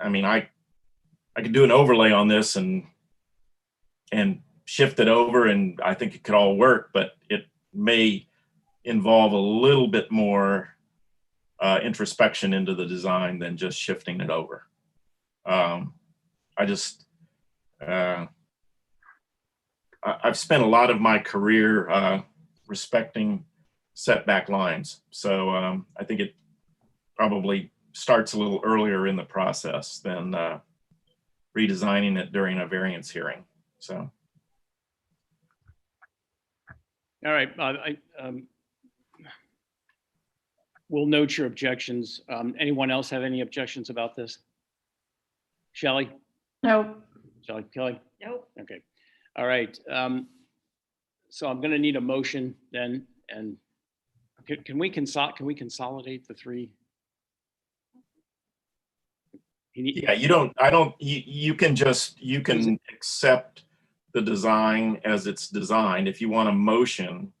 I mean, I, I could do an overlay on this and, and shift it over and I think it could all work, but it may involve a little bit more uh, introspection into the design than just shifting it over. Um, I just, uh, I, I've spent a lot of my career uh, respecting setback lines. So um, I think it probably starts a little earlier in the process than uh, redesigning it during a variance hearing. So All right, uh, I, um, we'll note your objections. Um, anyone else have any objections about this? Shelley, No, Shelley, Kelly? Nope. Okay, all right. Um, so I'm gonna need a motion then, and can, can we consol, can we consolidate the three? You need- yeah, you don't, I don't, you, you can just, you can accept the design as it's designed. If you want a motion,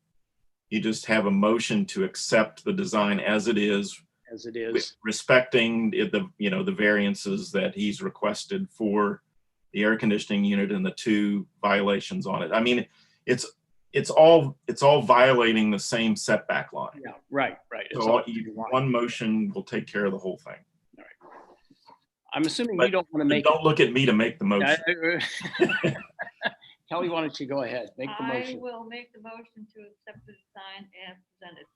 you just have a motion to accept the design as it is As it is, respecting it- the, you know, the variances that he's requested for the air conditioning unit and the two violations on it. I mean, it's, it's all, it's all violating the same setback line. yeah, right, right. It's So all- you- one motion will take care of the whole thing. I'm assuming but- you don't wanna And make. don't look at me to make the motion. Kelly, why don't you go ahead, make the I motion? will make the motion to accept the design as presented.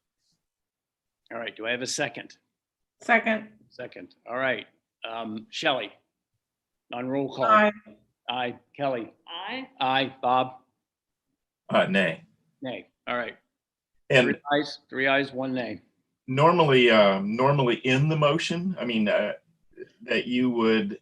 All right, do I have a second? second, Second, all right. Um, Shelley? On roll call. aye, Aye. Kelly? I, Aye. Bob? Uh, nay. Nay. All right. And Three ayes, three ayes, one nay. normally, um, normally in the motion, I mean, uh, that you would,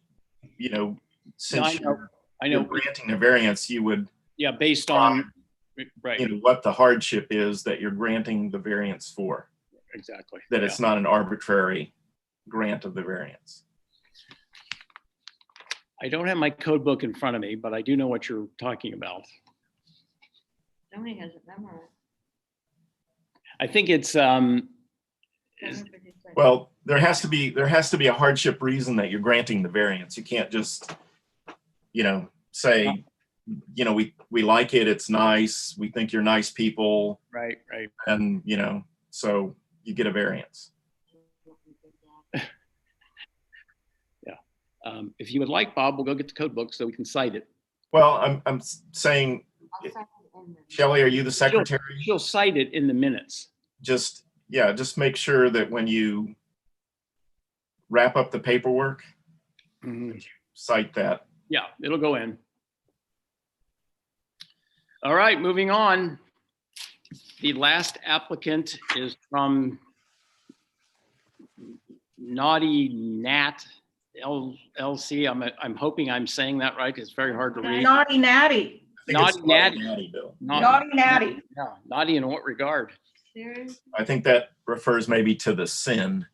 you know, I since know, you're I you're know, granting a variance, you would yeah, based on, Um, you right, know, what the hardship is that you're granting the variance for, exactly. that yeah. it's not an arbitrary grant of the variance. I don't have my code book in front of me, but I do know what you're talking about. Tony has it memorized. I think it's, um, is- 756. Well, there has to be, there has to be a hardship reason that you're granting the variance. You can't just, you know, say, you know, we, we like it, it's nice, we think you're nice people, right, right. and, you know, so you get a variance. Um, if you would like, Bob, we'll go get the code book so we can cite it. Well, I'm, I'm saying, I'll second in the- Shelley, are you the secretary? She'll cite it in the minutes. just, yeah, just make sure that when you wrap up the paperwork, Mm-hmm. cite that. Yeah, it'll go in. All right, moving on. The last applicant is from Naughty Nat LLC. I'm, I'm hoping I'm saying that right. It's very hard to read. naughty natty, I think it's Naughty natty. Naughty Bill. Naughty- naughty natty. Yeah, Naughty in what regard? Serious? I think that refers maybe to the sin.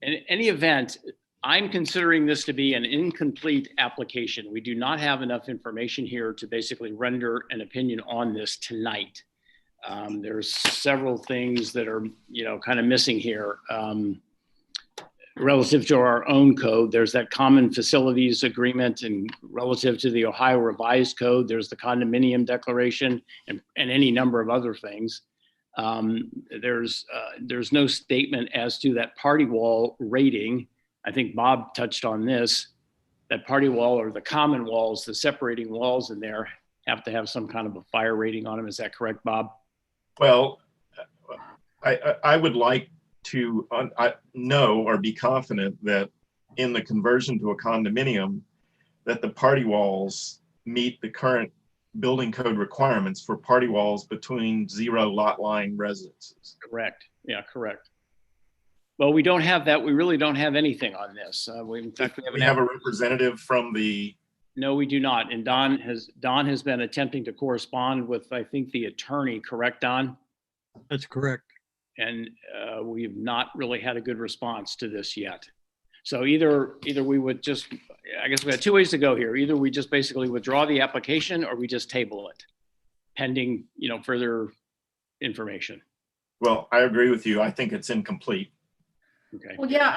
In any event, I'm considering this to be an incomplete application. We do not have enough information here to basically render an opinion on this tonight. Um, There's several things that are, you know, kind of missing here. Um, Relative to our own code, there's that common facilities agreement and relative to the Ohio revised code, there's the condominium declaration and, and any number of other things. Um, There's, uh, there's no statement as to that party wall rating. I think Bob touched on this. That party wall or the common walls, the separating walls in there have to have some kind of a fire rating on them. Is that correct, Bob? Well, I, I, I would like to, uh, I know or be confident that in the conversion to a condominium, that the party walls meet the current building code requirements for party walls between zero lot line residences. Correct. Yeah, correct. Well, we don't have that. We really don't have anything on this. Uh, we, in fact, we We haven't, have had- a representative from the, no, we do not. And Don has, Don has been attempting to correspond with, I think, the attorney, correct, Don? That's correct. and uh, we've not really had a good response to this yet. So either, either we would just, I guess we had two ways to go here. Either we just basically withdraw the application or we just table it pending, you know, further information. well, I agree with you. I think it's incomplete. Okay. Well, yeah,